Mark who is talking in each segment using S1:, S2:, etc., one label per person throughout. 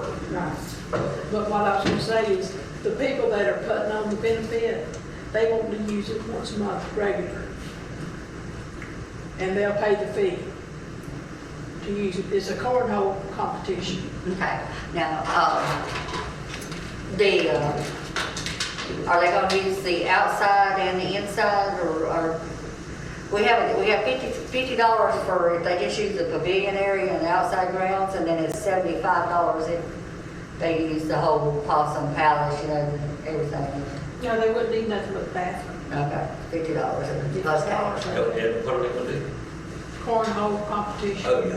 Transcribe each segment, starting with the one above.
S1: right. But what I was gonna say is, the people that are putting on the benefit, they want to use it once a month regular. And they'll pay the fee to use it. It's a cornhole competition.
S2: Okay, now, uh, the, uh, are they gonna use the outside and the inside, or, or, we have, we have fifty, fifty dollars for, if they just use the pavilion area and the outside grounds, and then it's seventy-five dollars if they use the whole Possum Palace, you know, everything.
S1: No, they wouldn't need nothing but bathroom.
S2: Okay, fifty dollars, plus tax.
S3: Go ahead, what are they gonna do?
S1: Cornhole competition.
S3: Oh, yeah.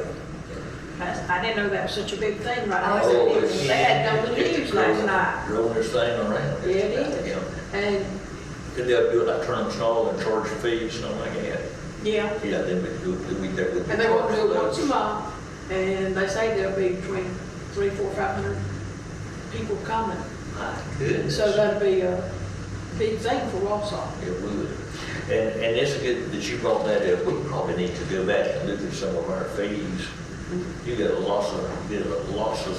S1: That's- I didn't know that was such a big thing right now.
S2: Oh,
S3: it's-
S1: They had it on the
S3: it's
S1: news last
S3: growing-
S1: night.
S3: Growing this thing around.
S1: Yeah, it is.
S3: Yeah.
S1: And,
S3: Could they do it like Trump's Hall and charge a fee, something like that?
S1: yeah,
S3: Yeah, then we do, it- we, that would. be
S1: and they want to do
S3: charged
S1: it once a
S3: those.
S1: month. And they say there'll be between three, four, five hundred people coming.
S3: My goodness.
S1: So that'd be a big thing for Wausau.
S3: It would. And, and it's good that you brought that up. We probably need to go back and look at some of our fees. You got lots of, did lots of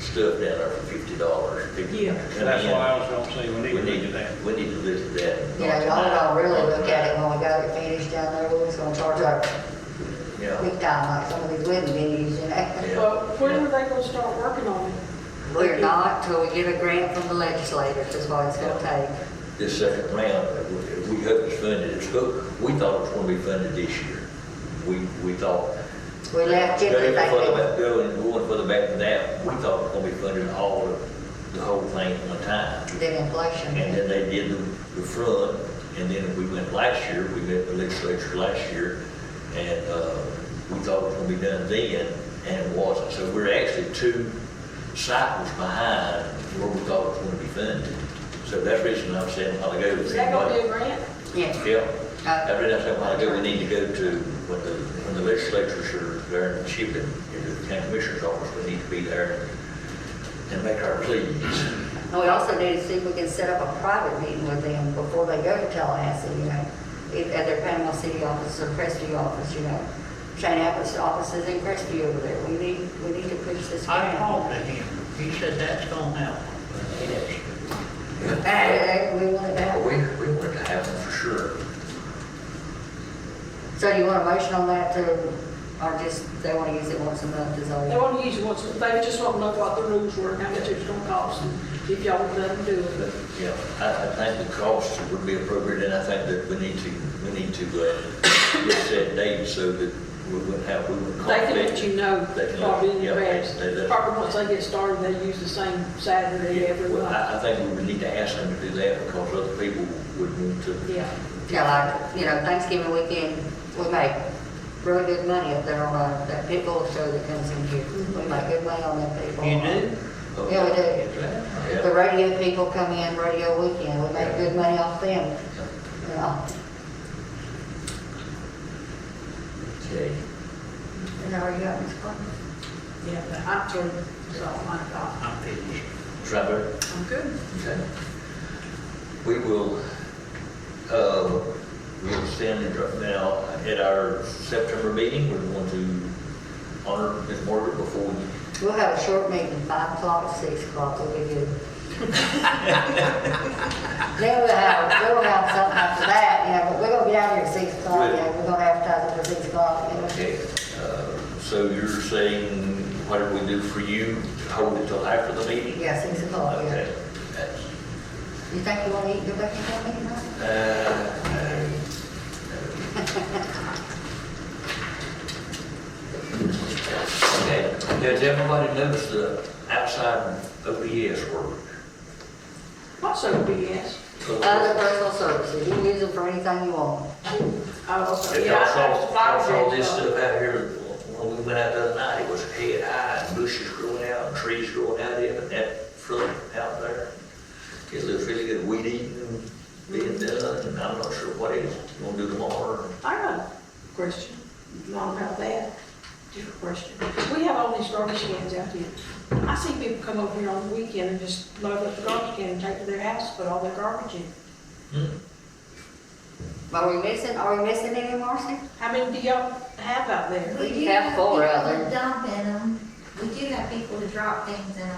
S3: stuff down there for fifty dollars.
S1: Yeah.
S4: And that's why I was gonna say, we need
S3: We
S4: to look
S3: need,
S4: at that.
S3: we need to look at that.
S2: Yeah, y'all don't really look at it when we got it finished down there, we're just gonna charge our
S3: Yeah.
S2: quick time, like some of these wedding venues, you know?
S3: Yeah.
S1: But when are they gonna start working on it?
S2: We're not till we get a grant from the legislators, is what it's gonna take.
S3: This second round, we- we hope it's funded. It's go, we thought it was gonna be funded this year. We, we thought,
S2: We left it,
S3: going
S2: they
S3: further
S2: think,
S3: back, going, going further back than that, we thought it was gonna be funded all of, the whole thing at one time.
S2: then inflation.
S3: And then they did the, the front, and then we went last year, we met the legislature last year, and, uh, we thought it was gonna be done then, and it wasn't. So we're actually two cycles behind where we thought it was gonna be funded. So that's the reason I'm saying, while ago,
S1: Is that gonna be Uh, a grant?
S2: Yeah,
S3: yeah, I read that while ago, we need to go to, when the, when the legislatures are there in Chipton, in the county commissioner's office, we need to be there and make our pleas.
S2: and we also need to see if we can set up a private meeting with them before they go to Tallahassee, you know? If- At their Panama City office or Crestview office, you know? Shane Apple's office is in Crestview over there, we need, we need to push this
S5: I
S2: grant.
S5: talked to him, he said that's gonna happen. It is.
S2: Eh, we want it
S3: Yeah,
S2: back.
S3: we, we wanted to have them for sure.
S2: So you want a motion on that to, or just, they wanna use it once a month, is all?
S1: They wanna use it once, they just wanna know what the rules were, and how much it was gonna cost, and if y'all would let them do
S3: But,
S1: it.
S3: you know, I, I think the cost would be appropriate, and I think that we need to, we need to, uh, get set dates so that we wouldn't have, we wouldn't
S1: They can let
S3: conflict.
S1: you know
S3: They can let-
S1: probably in
S3: yeah, they-
S1: advance.
S3: they let-
S1: Probably once they get started, they use the same Saturday every
S3: Well,
S1: month.
S3: I, I think we would need to ask them to do that because other people would want to.
S1: Yeah.
S2: Yeah, like, you know, Thanksgiving weekend, we make really good money up there on uh, that pit bull show that comes in here. We make good money on that pit bull.
S5: You do?
S2: Yeah, we do. The
S3: Oh, Yeah.
S2: radio people come in, radio weekend, we make good money off them, you know.
S3: Okay.
S2: And are you out in Spartan?
S1: Yeah, but I'm through, so my God,
S5: I'm finished.
S3: Trevor?
S1: I'm good.
S3: Okay. We will, uh, we'll stand it right now at our September meeting. We're going to honor Ms. Margaret before we
S2: We'll have a short meeting, five o'clock, six o'clock, we'll be good. Then we'll have, we'll have something after that, you know, but we're gonna be out here at six o'clock, you know, we're gonna advertise it for six o'clock, you know.
S3: Okay, uh, so you're saying whatever we do for you, hold it till after the meeting?
S2: Yeah, six o'clock, yeah.
S3: Okay. that's-
S2: You think you wanna eat, go back and have me tonight?
S3: uh, uh, Okay, does everybody notice the outside OPS work?
S1: What's OBS?
S2: Other Uh, personal services, you can use them for anything you want.
S1: Oh, okay.
S3: If
S1: yeah,
S3: y'all
S1: I
S3: saw,
S1: noticed
S3: y'all
S1: flowers
S3: saw
S1: and
S3: this
S1: stuff.
S3: stuff out here, when we went out the other night, it was head high, and bushes growing out, and trees growing out of it, and that front out there. It looks really good, weed eating, being done, and I'm not sure what else we're gonna do tomorrow.
S1: I got a question, not about that, different question. We have all these garbage cans out here. I see people come over here on the weekend and just load up the garbage can and take to their house, put all their garbage in.
S2: Are we missing, are we missing any, Marcy?
S1: How many do y'all have out there?
S2: We
S6: We do
S2: have
S6: have
S2: four
S6: people
S2: out there.
S6: dumping them. We do have people who drop things in them.